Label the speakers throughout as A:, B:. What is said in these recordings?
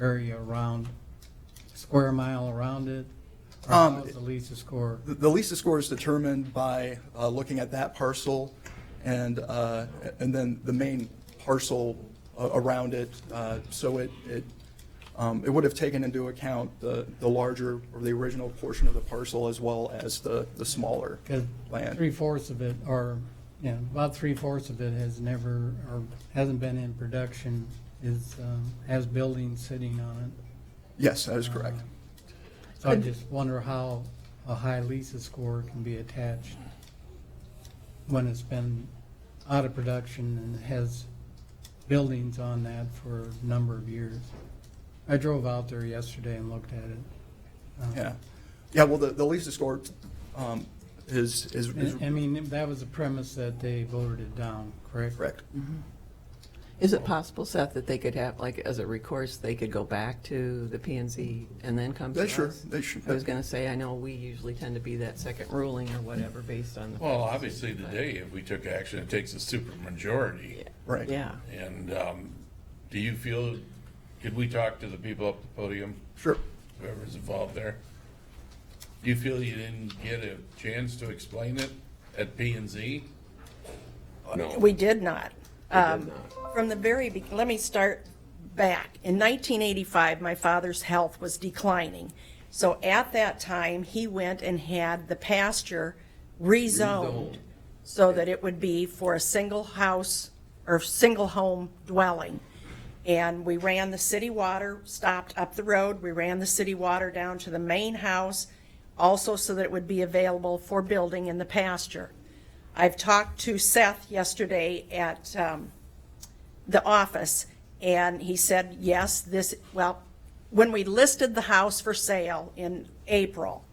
A: area around, square mile around it? Or
B: Um,
A: how's the Lisa score?
B: The- The Lisa score is determined by uh, looking at that parcel and, uh, and then the main parcel a- around it. Uh, So it, it, um, it would have taken into account the, the larger or the original portion of the parcel as well as the, the smaller
A: Because three
B: land.
A: fourths of it, or, you know, about three fourths of it has never, or hasn't been in production, is, um, has buildings sitting on
B: Yes, that is correct.
A: it. So I just wonder how a high Lisa score can be attached when it's been out of production and has buildings on that for a number of years. I drove out there yesterday and looked at it. Um,
B: Yeah. Yeah, well, the, the Lisa score um, is, is is
A: And- I mean, that was the premise that they voted it down, correct?
B: correct.
C: Is it possible, Seth, that they could have, like, as a recourse, they could go back to the P and Z and then come to
B: They
C: us?
B: sure, they sure.
C: I was going to say, I know we usually tend to be that second ruling or whatever based on the.
D: Well, obviously today, if we took action, it takes a supermajority.
B: Right.
C: Yeah,
D: And um, do you feel, could we talk to the people up the podium,
B: Sure.
D: whoever's involved there? Do you feel you didn't get a chance to explain it at P and Z?
E: We did not. Um, From the very, be- let me start back. In 1985, my father's health was declining. So at that time, he went and had the pasture rezoned so that it would be for a single house or single home dwelling. And we ran the city water, stopped up the road, we ran the city water down to the main house, also so that it would be available for building in the pasture. I've talked to Seth yesterday at um, the office, and he said, yes, this, well, when we listed the house for sale in April,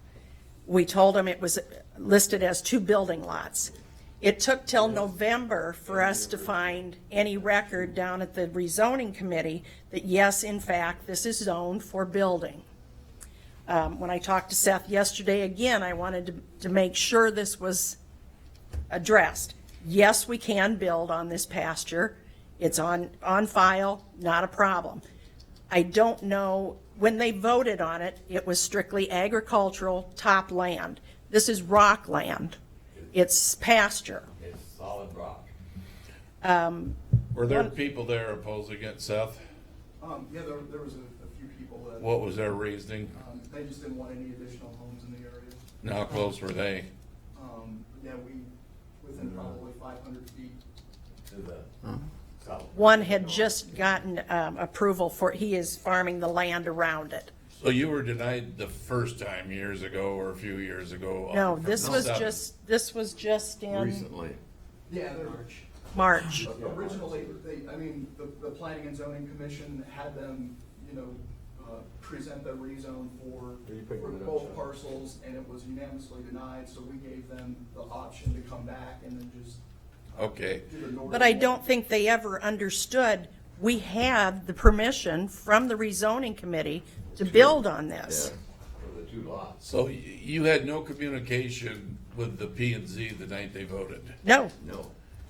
E: we told him it was listed as two building lots. It took till November for us to find any record down at the rezoning committee that, yes, in fact, this is zoned for building. Um, When I talked to Seth yesterday, again, I wanted to, to make sure this was addressed. Yes, we can build on this pasture. It's on, on file, not a problem. I don't know, when they voted on it, it was strictly agricultural top land. This is rock land. It's pasture.
F: It's solid rock.
D: Were there people there opposing it, Seth?
B: Um, Yeah, there, there was a a few people that.
D: What was their reasoning?
B: Um, They just didn't want any additional homes in the area.
D: And How close were they?
B: Um, Yeah, we, within
F: Mm-hmm.
B: probably 500 feet.
F: To the south.
E: One had just gotten um, approval for, he is farming the land around it.
D: So you were denied the first time years ago or a few years ago? uh,
E: No,
D: from
E: this
D: the
E: was
D: seven.
E: just, this was just in
F: Recently.
B: Yeah, there-
E: March.
B: originally, they, I mean, the, the Planning and Zoning Commission had them, you know, uh, present the rezone for
F: Are you picking
B: for
F: it up,
B: both
F: Sean?
B: parcels, and it was unanimously denied, so we gave them the option to come back and then just
D: Okay.
B: do the north.
E: But I don't think they ever understood, we have the permission from the rezoning committee to build on this.
F: For the two lots.
D: So y- you had no communication with the P and Z the night they voted?
E: No,
F: No.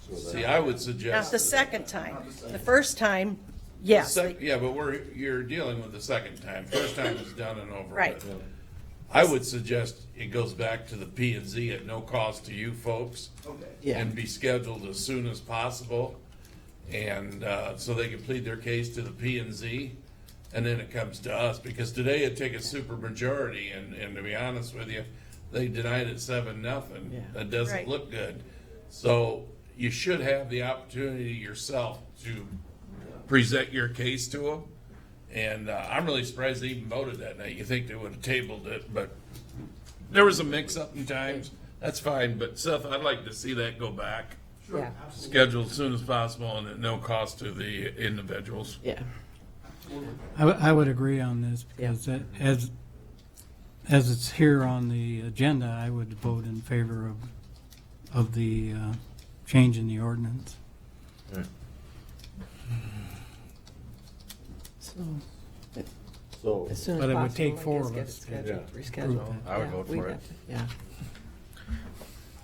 F: So
D: See,
F: that,
D: I would
E: not
D: suggest.
E: the second time. The first time, yes.
D: Sec- Yeah, but we're, you're dealing with the second time. First time is done and over
E: Right.
D: with. I would suggest it goes back to the P and Z at no cost to you folks.
B: Okay.
C: Yeah.
D: And be scheduled as soon as possible. And, uh, so they can plead their case to the P and Z. And then it comes to us, because today it'd take a super majority and, and to be honest with you, they denied it seven, nothing.
C: Yeah.
D: That doesn't
E: Right.
D: look good. So you should have the opportunity yourself to present your case to them. And uh, I'm really surprised they even voted that night. You think they would have tabled it, but there was a mix-up in times. That's fine, but Seth, I'd like to see that go back,
C: yeah,
D: scheduled as soon as possible and at no cost to the individuals.
C: yeah.
A: I, w- I would agree on this because that- as, as it's here on the agenda, I would vote in favor of, of the uh, change in the ordinance.
C: So
F: so,
C: as soon as
A: But it would
C: possible,
A: take
C: I guess,
A: four of
C: get
A: us to
C: scheduled,
A: approve
C: Rescheduled.
F: I would
C: Yeah,
F: vote
C: we
F: for it.
C: have to- Yeah.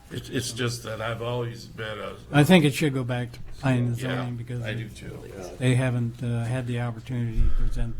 D: It's, it's just that I've always been a,
A: I think it should go back to planning and
D: yeah,
A: zoning because
D: I do too.
A: they haven't uh, had the opportunity to present